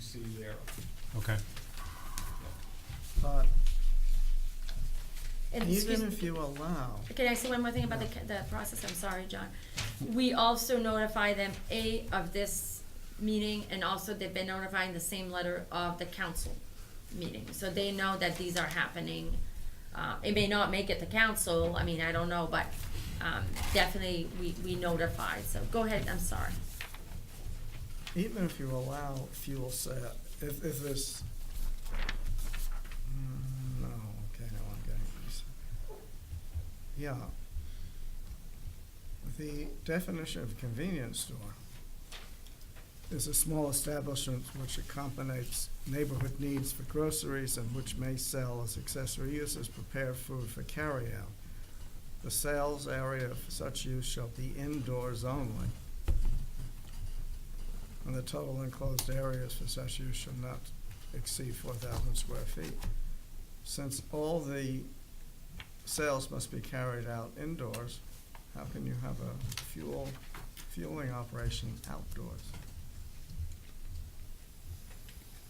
see there. Okay. But And excuse- even if you allow, Can I say one more thing about the, ca- the process? I'm sorry, John. We also notify them, A, of this meeting, and also they've been notifying the same letter of the council meeting. So they know that these are happening. Uh, it may not make it to council, I mean, I don't know, but, um, definitely we, we notify. So go ahead, I'm sorry. even if you allow fuel set, if, if this, Mm, no, okay, no, I'm getting this. Yeah. The definition of convenience store is a small establishment which accommodates neighborhood needs for groceries and which may sell as accessory uses prepared food for carryout. The sales area for such use shall be indoors only. And the total enclosed areas for such use shall not exceed four thousand square feet. Since all the sales must be carried out indoors, how can you have a fuel, fueling operation outdoors?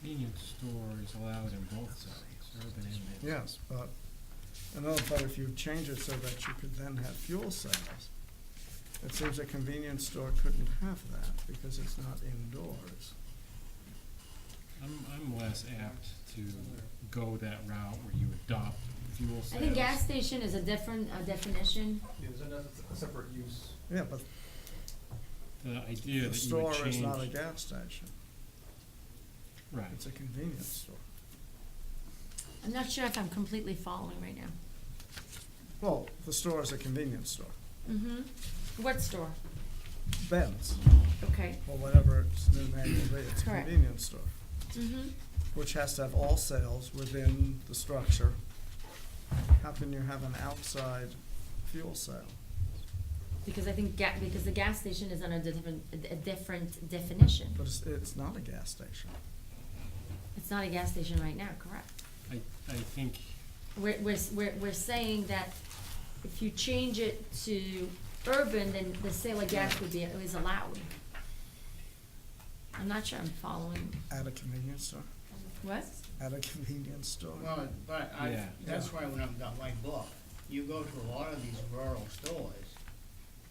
Convenience store is allowed in both zones, urban and rural. Yes, but, I know, but if you change it so that you could then have fuel sales, it seems a convenience store couldn't have that because it's not indoors. I'm, I'm less apt to go that route where you adopt fuel I sales. think gas station is a different, uh definition. Yeah, there's another, a separate use. Yeah, but The idea the that you would store is change, not a gas station, right, it's a convenience store. I'm not sure if I'm completely following right now. Well, the store is a convenience store. Mm-hmm. What store? Ben's, Okay. or whatever its new name will be, it's a Correct. convenience store, Mm-hmm. which has to have all sales within the structure. How can you have an outside fuel sale? Because I think ga- because the gas station is under a different, a different definition. But it's, it's not a gas station. It's not a gas station right now, correct? I, I think, We're, we're, s- we're, we're saying that if you change it to urban, then the sale of gas would be, is allowed. I'm not sure I'm following. At a convenience store, What? at a convenience store. Well, but I, Yeah. that's why when I've got my book, you go to a lot of these rural stores,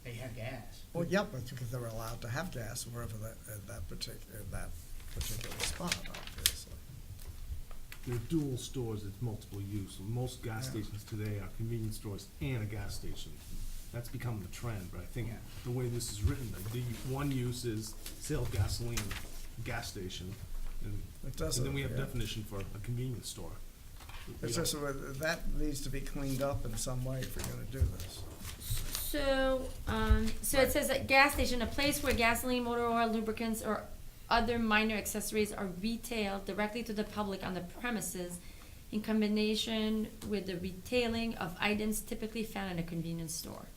they have gas. Well, yeah, but because they're allowed to have gas wherever that, at that particular, that particular spot, obviously. They're dual stores, it's multiple use. Most gas Yeah. stations today are convenience stores and a gas station. That's become the trend, but I think Yeah. the way this is written, like, the one use is sale of gasoline, gas station, and, It and doesn't. then we have yeah. definition for a convenience store. We It's don't- just, whether- that needs to be cleaned up in some way if we're gonna do this. So, um, so it says that gas station, a place where gasoline, motor oil, lubricants, or other minor accessories are retailed directly to the public on the premises in combination with the retailing of items typically found in a convenience store.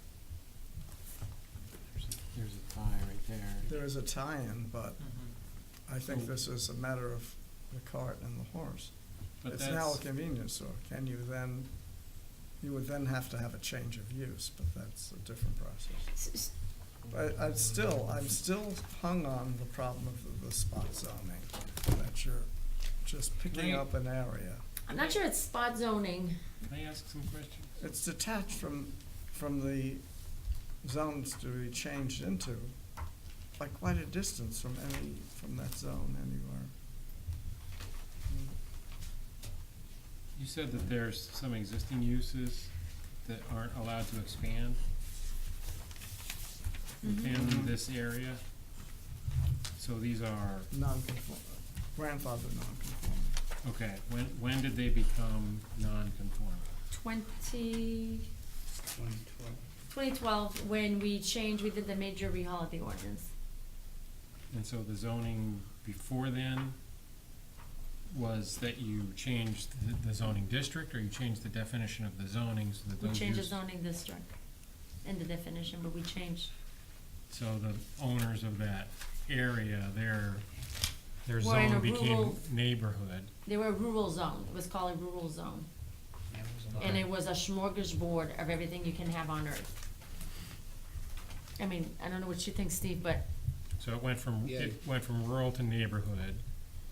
there's a- there's a tie right there. There is a tie-in, but Mm-hmm. I think this is a matter of the cart and the horse. But It's now a that's, convenience store. Can you then, you would then have to have a change of use, but that's a different process. S- s- But I'm still, I'm still hung on the problem of the- the spot zoning, that you're just picking Right. up an area. I'm not sure it's spot zoning. can I ask some questions? It's detached from, from the zones to be changed into, by quite a distance from any, from that zone anywhere. You said that there's some existing uses that aren't allowed to expand within Mm-hmm. Mm-hmm. Mhm. this area. So these are, Non-conform, grandfather non-conforming. okay, when, when did they become non-conforming? Twenty, Twenty twelve. twenty twelve, when we changed, we did the major rehaul of the ordinance. And so the zoning before then was that you changed the- the zoning district, or you changed the definition of the zoning so that We those changed the use? zoning district and the definition, but we changed. So the owners of that area, their, their Were in a zone became rural- neighborhood. They were a rural zone. It was called a rural zone. That was a lot. And it was a smorgasbord of everything you can have on earth. I mean, I don't know what you think, Steve, but So it went from, Yeah. it went from rural to neighborhood,